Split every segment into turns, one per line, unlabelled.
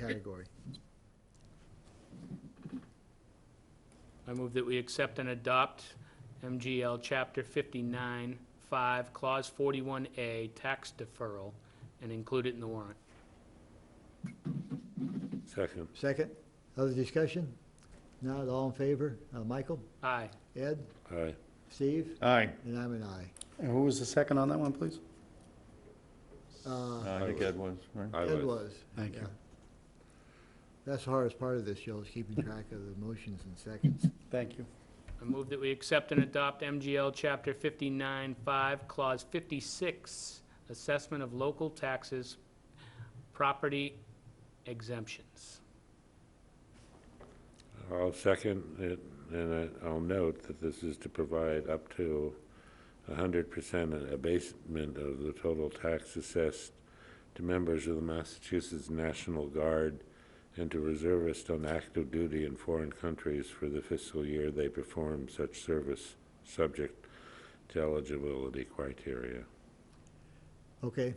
category.
I move that we accept and adopt MGL Chapter 59, 5, Clause 41A, tax deferral, and include it in the warrant.
Second.
Second, other discussion? Not all in favor? Uh, Michael,
Aye.
Ed,
Aye.
Steve,
Aye.
and I'm an aye.
And who was the second on that one, please?
Uh,
I
think Ed
was, right?
I
Ed
was.
was.
Thank you.
yeah. That's the hardest part of this, Joe, is keeping track of the motions and seconds.
Thank you.
I move that we accept and adopt MGL Chapter 59, 5, Clause 56, assessment of local taxes, property exemptions.
I'll second it, and I- I'll note that this is to provide up to 100% abatement of the total tax assessed to members of the Massachusetts National Guard and to reservists on active duty in foreign countries for the fiscal year they perform such service, subject to eligibility criteria.
Okay.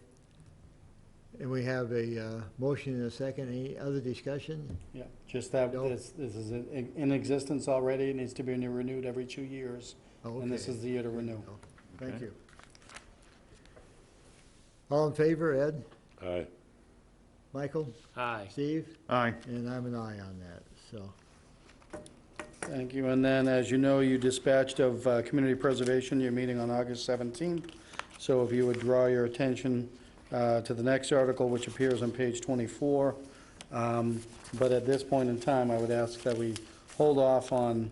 And we have a uh, motion and a second. Any other discussion?
Yeah, just that,
No.
this, this is in in existence already, it needs to be renewed every two years,
Oh,
and this
okay.
is the year to renew.
Thank
Okay.
you. All in favor, Ed,
Aye.
Michael,
Aye.
Steve,
Aye.
and I'm an aye on that, so.
Thank you. And then, as you know, you dispatched of uh, Community Preservation, your meeting on August 17th. So if you would draw your attention uh, to the next article, which appears on page 24. Um, But at this point in time, I would ask that we hold off on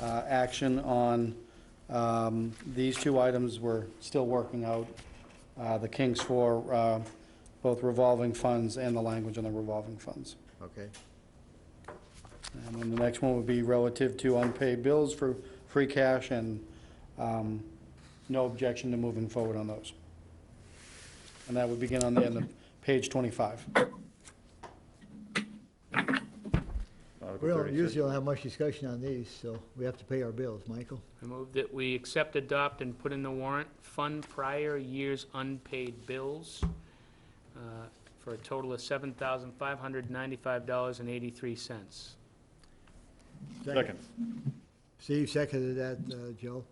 uh, action on, um, these two items we're still working out. uh, The kinks for uh, both revolving funds and the language on the revolving funds.
Okay,
And then the next one would be relative to unpaid bills for free cash and um, no objection to moving forward on those. And that would begin on the end of page 25.
we don't usually don't have much discussion on these, so we have to pay our bills, Michael.
I move that we accept, adopt, and put in the warrant, fund prior year's unpaid bills uh, for a total of $7,595.83.
Second. Steve seconded that, uh, Joe.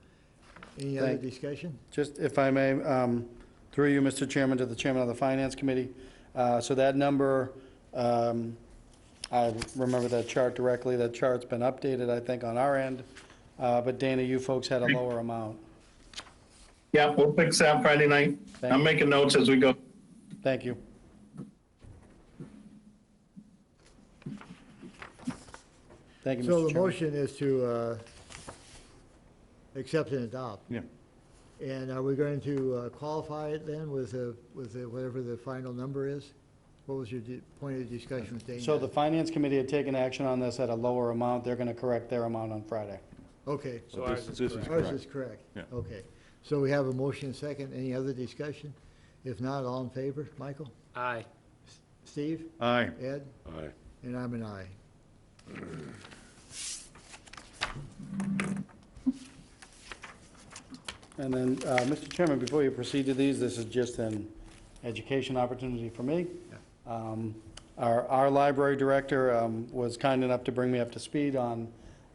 Any other
Thank-
discussion?
Just if I may, um, through you, Mr. Chairman, to the Chairman of the Finance Committee, uh, so that number, um, I remember that chart directly, that chart's been updated, I think, on our end, Uh, but Dana, you folks had a lower amount.
Yeah, we'll fix that Friday night. I'm making notes as we go.
Thank you. Thank you,
So the
Mr. Chairman.
motion is to uh, accept and adopt.
Yeah.
And are we going to uh, qualify it then with, a- with a- whatever the final number is? What was your di- point of discussion with Dana?
So the Finance Committee had taken action on this at a lower amount. They're going to correct their amount on Friday.
Okay,
So ours is correct.
ours is correct. Okay, so we have a motion second. Any other discussion? If not, all in favor? Michael?
Aye.
Steve?
Aye.
Ed?
Aye.
And I'm an aye.
And then, uh, Mr. Chairman, before you proceed to these, this is just an education opportunity for me. Um, Our, our library director um, was kind enough to bring me up to speed on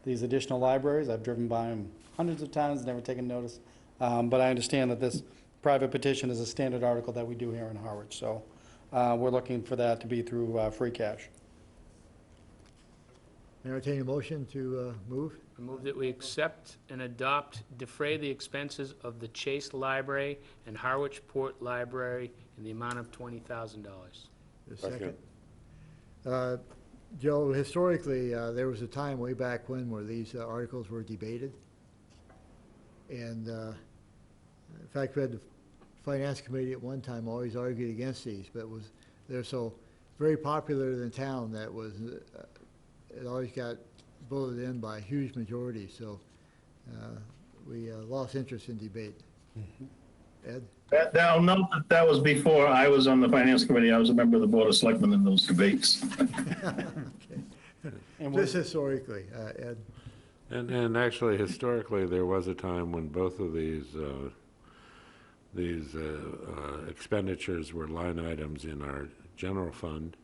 these additional libraries. I've driven by them hundreds of times, never taken notice. Um, But I understand that this private petition is a standard article that we do here in Harwich. So uh, we're looking for that to be through uh, free cash.
Entertain a motion to uh, move?
I move that we accept and adopt, defray the expenses of the Chase Library and Harwich Port Library in the amount of $20,000.
The
Second.
second. Uh, Joe, historically, uh, there was a time way back when where these uh, articles were debated. And uh, in fact, we had the Finance Committee at one time always argued against these, but was, they're so very popular in the town that was, uh, it always got voted in by a huge majority, so uh, we uh, lost interest in debate. Ed?
That, that- I'll note that that was before I was on the finance committee. I was a member of the board of selectmen in those debates.
And we're-
Just historically, uh, Ed.
And, and actually, historically, there was a time when both of these, uh, these uh, uh, expenditures were line items in our general fund,